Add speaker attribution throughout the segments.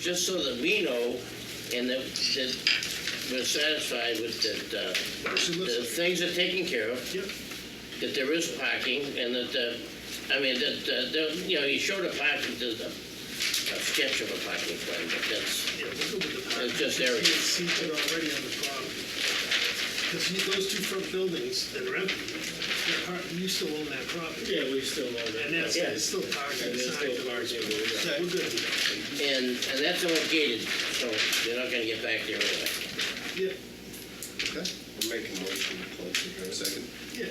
Speaker 1: just so that we know and that, that we're satisfied with that, uh,
Speaker 2: She lives
Speaker 1: the
Speaker 2: there.
Speaker 1: things are taken care of,
Speaker 2: Yep,
Speaker 1: that there is parking, and that, uh, I mean, that, uh, there- you know, you showed a parking, there's a a sketch of a parking plan, but that's,
Speaker 2: yeah, we'll go with the park.
Speaker 1: It's just area.
Speaker 2: You can see it already on the property. Because those two front buildings that are empty, they're part- you still own that property.
Speaker 3: Yeah, we still own that.
Speaker 2: And that's,
Speaker 1: Yeah.
Speaker 2: it's still parking
Speaker 3: And there's
Speaker 2: inside.
Speaker 3: still parking over there.
Speaker 2: We're good with
Speaker 1: and, and that's all gated, so you're not gonna get back there anyway.
Speaker 2: that. Yeah,
Speaker 4: I'll Make a motion to close the hearing. Second.
Speaker 2: yeah.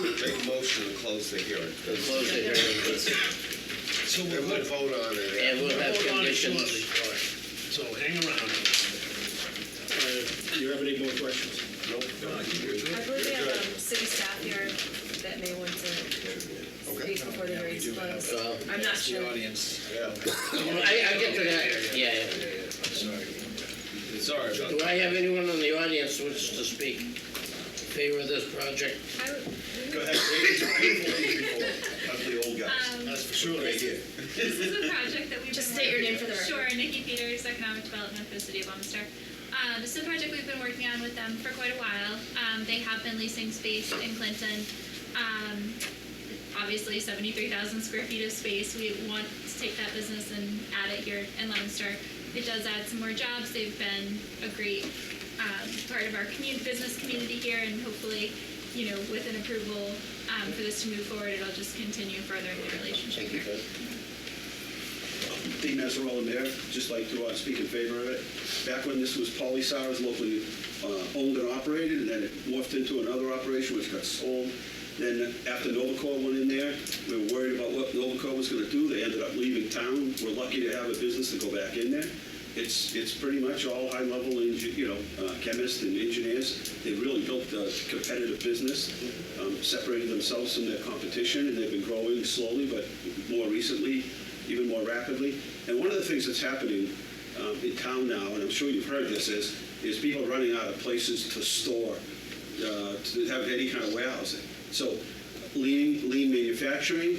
Speaker 4: Make a motion to close the hearing.
Speaker 1: We'll close the hearing,
Speaker 2: So we're
Speaker 4: And we'll
Speaker 2: good.
Speaker 4: vote
Speaker 1: and
Speaker 4: on it.
Speaker 1: we'll have
Speaker 2: Hold on to
Speaker 1: conditions.
Speaker 2: shortly. So hang around.
Speaker 3: Uh, Do you have any more questions?
Speaker 4: Nope.
Speaker 5: I believe we have um, city staff here that may want to
Speaker 4: Okay.
Speaker 5: speak before the hearing's closed.
Speaker 1: Well,
Speaker 5: I'm not sure.
Speaker 6: uh, The audience,
Speaker 1: I, I get to that, yeah, yeah.
Speaker 6: sorry about
Speaker 1: Do I have anyone in the audience who wishes to speak in favor of this project?
Speaker 5: I would-
Speaker 4: Go ahead. Ugly old guys.
Speaker 7: Um,
Speaker 2: That's for sure.
Speaker 4: Right here.
Speaker 7: This is a project that we've
Speaker 5: Just
Speaker 7: been
Speaker 5: state your
Speaker 7: working-
Speaker 5: name for the record.
Speaker 7: Sure, Nikki Peters, Economic Development for the City of Leominster. Uh, this is a project we've been working on with them for quite a while. Um, they have been leasing space in Clinton. Um, obviously, 73,000 square feet of space. We want to take that business and add it here in Leominster. It does add some more jobs. They've been a great um, part of our community, business community here, and hopefully, you know, with an approval um, for this to move forward, it'll just continue furthering the relationship here.
Speaker 8: Dean Mazzarella, Mayor, just like to uh, speak in favor of it. Back when this was Polisar's locally uh, owned and operated, and then it morphed into another operation which got sold. Then after Novacor went in there, we were worried about what Novacor was going to do. They ended up leaving town. We're lucky to have a business to go back in there. It's, it's pretty much all high-level, engi- you know, uh, chemists and engineers. They really built a competitive business, um, separated themselves from their competition, and they've been growing slowly, but more recently, even more rapidly. And one of the things that's happening um, in town now, and I'm sure you've heard this, is is people running out of places to store, uh, to have any kind of warehousing. So, lean lean manufacturing,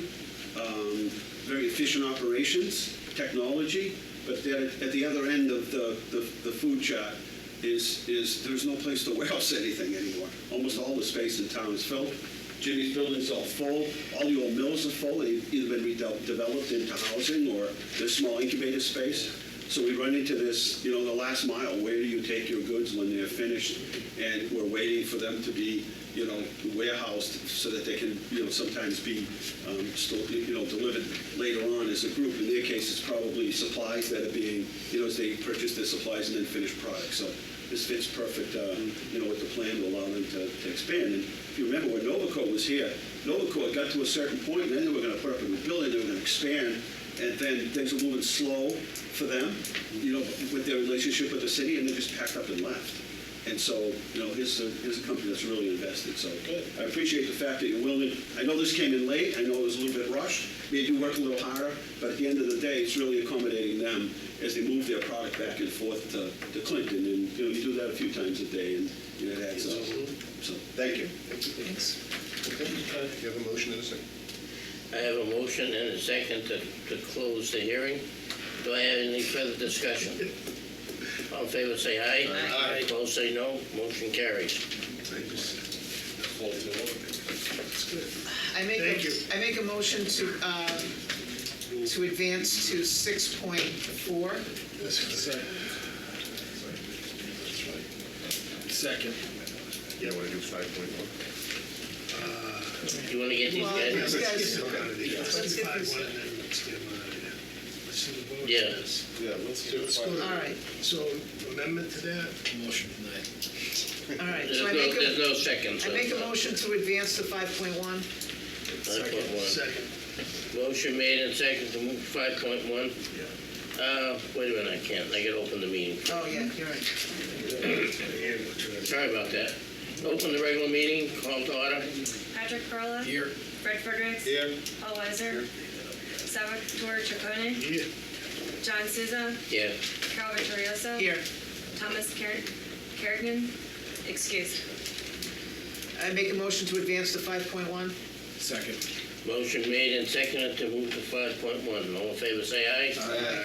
Speaker 8: um, very efficient operations, technology, but then at at the other end of the, the, the food chart is is there's no place to warehouse anything anymore. Almost all the space in town is filled. Jimmy's building's all full. All the old mills are full. They've either been redeveloped into housing or there's small incubator space. So we run into this, you know, the last mile. Where do you take your goods when they're finished? And we're waiting for them to be, you know, warehoused so that they can, you know, sometimes be, um, still, you know, delivered later on as a group. In their case, it's probably supplies that are being, you know, as they purchase their supplies and then finished products. So this fits perfect, uh, you know, with the plan to allow them to, to expand. And if you remember when Novaco was here, Novaco got to a certain point, and then they were going to put up a new building, they were going to expand, and then things were moving slow for them, you know, with their relationship with the city, and they just packed up and left. And so, you know, here's a, here's a company that's really invested, so. I appreciate the fact that you're willing, I know this came in late, I know it was a little bit rushed, made you work a little harder, but at the end of the day, it's really accommodating them as they move their product back and forth to, to Clinton, and, you know, you do that a few times a day, and you know, it adds up. So, thank you.
Speaker 4: You have a motion in a second?
Speaker 1: I have a motion and a second to, to close the hearing. Do I have any further discussion? All in favor, say aye.
Speaker 4: Aye.
Speaker 1: Opposed, say no. Motion carries.
Speaker 9: I make,
Speaker 2: Thank you.
Speaker 9: a- I make a motion to, um, to advance to 6.4.
Speaker 3: Second.
Speaker 4: Yeah, want to do five point one?
Speaker 1: You wanna get these
Speaker 9: Well,
Speaker 1: guys?
Speaker 9: yes.
Speaker 2: Let's
Speaker 9: guys-
Speaker 2: get out of the-
Speaker 9: let's get
Speaker 2: five,
Speaker 9: this-
Speaker 2: one, and then let's get them out of there. Let's see the vote on
Speaker 1: Yeah.
Speaker 2: this.
Speaker 4: Yeah, let's do
Speaker 2: Let's go
Speaker 4: five.
Speaker 2: to-
Speaker 9: All right.
Speaker 2: So amendment to that,
Speaker 6: motion tonight.
Speaker 9: All right,
Speaker 1: There's
Speaker 9: so I
Speaker 1: no,
Speaker 9: make
Speaker 1: there's
Speaker 9: a,
Speaker 1: no second.
Speaker 9: I make a motion to advance to 5.1.
Speaker 1: Five point one.
Speaker 2: second.
Speaker 1: Motion made and second to move five point one. Uh, wait a minute, I can't. I gotta open the meeting.
Speaker 9: Oh, yeah, you're right.
Speaker 1: Sorry about that. Open the regular meeting, call to order.
Speaker 5: Patrick Perla.
Speaker 6: Here.
Speaker 5: Fred Fredericks.
Speaker 4: Here.
Speaker 5: Paul Weiser. Salvatore Chaconi.
Speaker 2: Yeah.
Speaker 5: John Souza.
Speaker 1: Yeah.
Speaker 5: Carol Vittorioso.
Speaker 9: Here.
Speaker 5: Thomas Ker- Kerrigan. Excuse.
Speaker 9: I make a motion to advance to 5.1.
Speaker 3: Second.
Speaker 1: Motion made and seconded to move to five point one. All in favor, say aye.
Speaker 4: Aye.